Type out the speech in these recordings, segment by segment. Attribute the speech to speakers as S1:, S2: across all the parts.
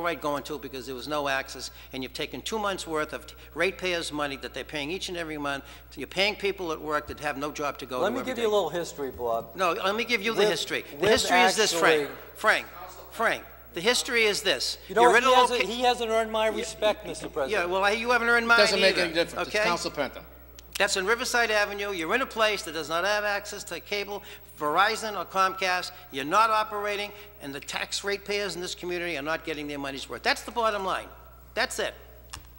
S1: right going to because there was no access, and you've taken two months' worth of ratepayers' money that they're paying each and every month. So You're paying people at work that have no job to go to
S2: Let me
S1: every
S2: give you a
S1: day.
S2: little history, Bob.
S1: No, let me give you the
S2: With-
S1: history. The
S2: with
S1: history is this, Frank.
S2: actually-
S1: Frank, Frank, the history is this.
S2: You know
S1: You're
S2: what?
S1: in
S2: He
S1: a
S2: hasn't,
S1: loca-
S2: he hasn't earned my respect, Mr.
S1: Yeah,
S2: President.
S1: well, I- you haven't earned mine either.
S3: Doesn't make any difference. It's
S1: okay?
S3: Council Penta.
S1: That's in Riverside Avenue. You're in a place that does not have access to cable, Verizon or Comcast. You're not operating, and the tax ratepayers in this community are not getting their money's worth. That's the bottom line. That's it.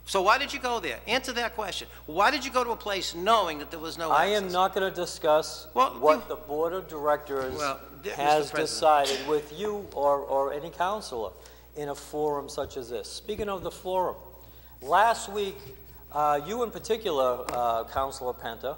S1: So why did you go there? Answer that question. Why did you go to a place knowing that there was no
S2: I
S1: access?
S2: am not going to discuss
S1: Well,
S2: what
S1: you-
S2: the Board of Directors
S1: Well, th- Mr.
S2: has
S1: President.
S2: decided with you or, or any counselor in a forum such as this. Speaking of the forum, last week, uh, you in particular, uh, Counselor Penta,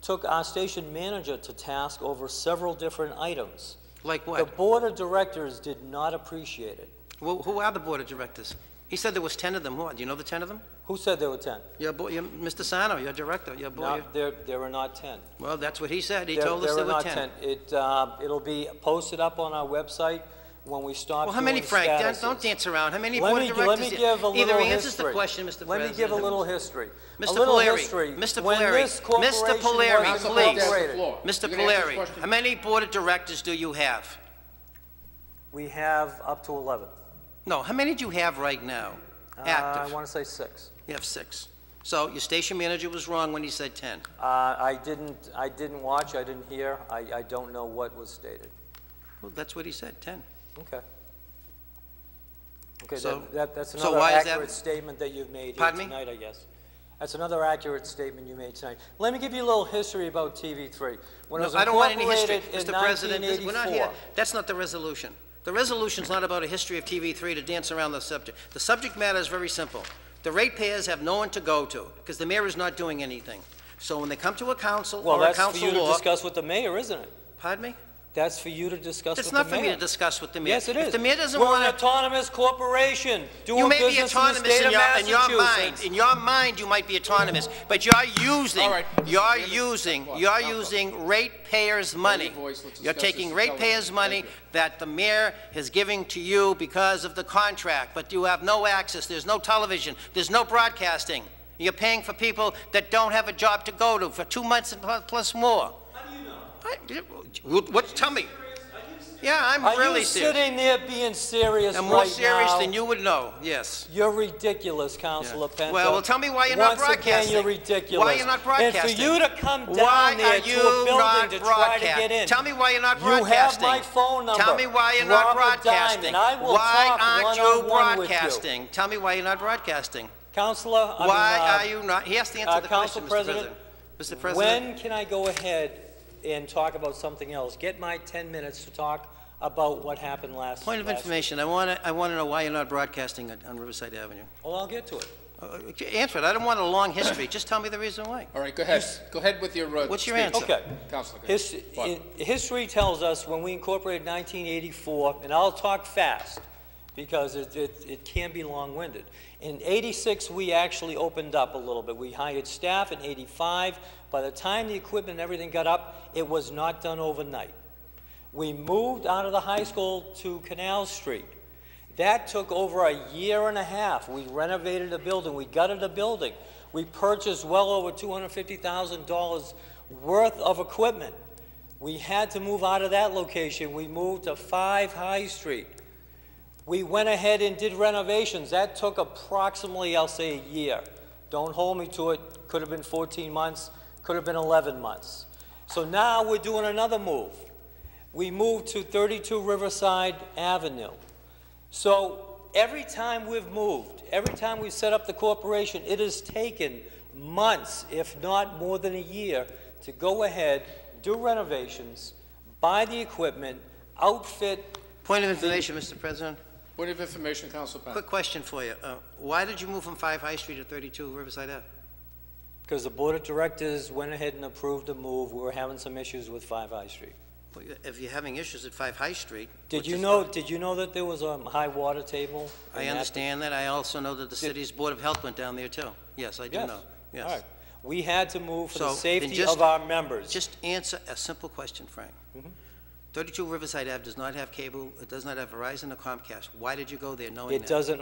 S2: took our station manager to task over several different items.
S1: Like
S2: The
S1: what?
S2: Board of Directors did not appreciate it.
S1: Who who are the board of directors? He said there was 10 of them. What, do you know the 10 of them?
S2: Who said there were 10?
S1: Your boy, your, Mr. Sano, your director, your
S2: No,
S1: boy.
S2: there, there were not 10.
S1: Well, that's what he said. He
S2: There-
S1: told us
S2: there
S1: there were
S2: not
S1: 10.
S2: It, uh, it'll be posted up on our website when we stop
S1: Well, how many,
S2: doing
S1: Frank? Dan- Don't
S2: statuses.
S1: dance around. How many
S2: Let
S1: board
S2: me,
S1: of
S2: let me
S1: directors?
S2: give a little
S1: Either
S2: history.
S1: answer the question, Mr. President.
S2: Let me give a little history. A
S1: Mr.
S2: little
S1: Polari,
S2: history.
S1: Mr.
S2: When
S1: Polari,
S2: this
S1: Mr.
S2: corporation
S1: Polari,
S2: was
S1: Council
S3: Penta has the
S2: incorporated,
S3: floor.
S1: Mr.
S3: You gonna answer this
S1: Polari,
S3: question?
S1: how many board of directors do you have?
S2: We have up to 11.
S1: No, how many do you have right now?
S2: Uh, I
S1: Active?
S2: want to say six.
S1: You have six. So your station manager was wrong when he said 10.
S2: Uh, I didn't, I didn't watch, I didn't hear, I, I don't know what was stated.
S1: Well, that's what he said, 10.
S2: Okay. Okay,
S1: So-
S2: that- that, that's
S1: so
S2: another
S1: why is that-
S2: accurate statement that you've made here
S1: Pardon me?
S2: tonight, I guess. That's another accurate statement you made tonight. Let me give you a little history about TV3. When it
S1: No,
S2: was
S1: I don't want any history,
S2: incorporated in
S1: Mr. President. this- We're not here,
S2: 1984.
S1: that's not the resolution. The resolution's not about a history of TV3 to dance around the subject. The subject matter is very simple. The ratepayers have no one to go to, because the mayor is not doing anything. So when they come to a council
S2: Well,
S1: or a
S2: that's for you
S1: council
S2: to
S1: law...
S2: discuss with the mayor, isn't it?
S1: Pardon me?
S2: That's for you to discuss with
S1: It's
S2: the mayor.
S1: not for me to discuss with the mayor.
S2: Yes, it is.
S1: If the mayor doesn't
S2: We're an
S1: want to...
S2: autonomous corporation, doing
S1: You may be
S2: business in the
S1: autonomous
S2: state
S1: in
S2: of
S1: your, in your mind.
S2: Massachusetts.
S1: In your mind, you might be autonomous, but you're using,
S3: All right.
S1: you're
S3: Let's-
S1: using,
S3: let's-
S1: you're
S3: let's-
S1: using ratepayers' money.
S3: your voice. Let's
S1: You're
S3: discuss this
S1: taking
S3: intelligently.
S1: ratepayers' money
S3: Thank you.
S1: that the mayor is giving to you because of the contract, but you have no access, there's no television, there's no broadcasting. You're paying for people that don't have a job to go to for two months and pl- plus more. How do you know? What, tell me. Yeah, I'm
S2: Are
S1: really
S2: you
S1: serious.
S2: sitting there being serious right
S1: I'm
S2: now?
S1: more serious than you would know, yes.
S2: You're ridiculous, Counselor
S1: Yeah.
S2: Penta.
S1: Well, well, tell me why you're not
S2: uh, Once again,
S1: broadcasting.
S2: you're ridiculous.
S1: Why you're not broadcasting?
S2: And for you to come
S1: Why
S2: down
S1: are
S2: there to a
S1: you not
S2: building to try to get in.
S1: broadcasting? Tell me why you're not
S2: You have
S1: broadcasting.
S2: my phone number.
S1: Tell me why you're not
S2: Robert
S1: broadcasting.
S2: Diamond. I will
S1: Why
S2: talk
S1: aren't you
S2: one-on-one with you.
S1: broadcasting? Tell me why you're not broadcasting.
S2: Counselor, I mean,
S1: Why
S2: uh,
S1: are you not, he has to
S2: uh,
S1: answer the
S2: Council
S1: question, Mr.
S2: President,
S1: President. Mr. President,
S2: When can I go ahead and talk about something else? Get my 10 minutes to talk about what happened last.
S1: point of
S2: last-
S1: information, I want to, I want to know why you're not broadcasting on- on Riverside Avenue.
S2: Well, I'll get to it.
S1: Uh, Answer it, I don't want a long history, just tell me the reason why.
S3: All right, go ahead. Go ahead with your, uh,
S1: What's your
S3: speech.
S1: answer?
S2: Okay.
S3: Counselor, go
S2: His-
S3: ahead. Fine.
S2: in- History tells us when we incorporated 1984, and I'll talk fast because it, it, it can be long-winded. In 86, we actually opened up a little bit. We hired staff in 85. By the time the equipment and everything got up, it was not done overnight. We moved out of the high school to Canal Street. That took over a year and a half. We renovated a building, we gutted a building, we purchased well over $250,000 worth of equipment. We had to move out of that location, we moved to 5 High Street. We went ahead and did renovations, that took approximately, I'll say, a year. Don't hold me to it, could have been 14 months, could have been 11 months. So now we're doing another move. We moved to 32 Riverside Avenue. So every time we've moved, every time we've set up the corporation, it has taken months, if not more than a year, to go ahead, do renovations, buy the equipment, outfit.
S1: Point of information, Mr. President,
S3: Point of information, Council Penta.
S1: quick question for you. Uh, Why did you move from 5 High Street to 32 Riverside Ave?
S2: Because the board of directors went ahead and approved a move. We were having some issues with Five High Street.
S1: Well, If you're having issues at 5 High Street...
S2: Did
S1: which
S2: you
S1: is-
S2: know, did you know that there was a high water table?
S1: I
S2: in that
S1: understand that. I also know that the city's Board of Health went down there, too. Yes, I do
S2: Yes.
S1: know. Yes.
S2: All right. We had to move for
S1: So,
S2: the
S1: then
S2: safety
S1: just-
S2: of our members.
S1: Mm-hmm. Just answer a simple question, Frank. 32 Riverside Ave does not have cable, it does not have Verizon or Comcast. Why did you go there knowing that?
S2: It doesn't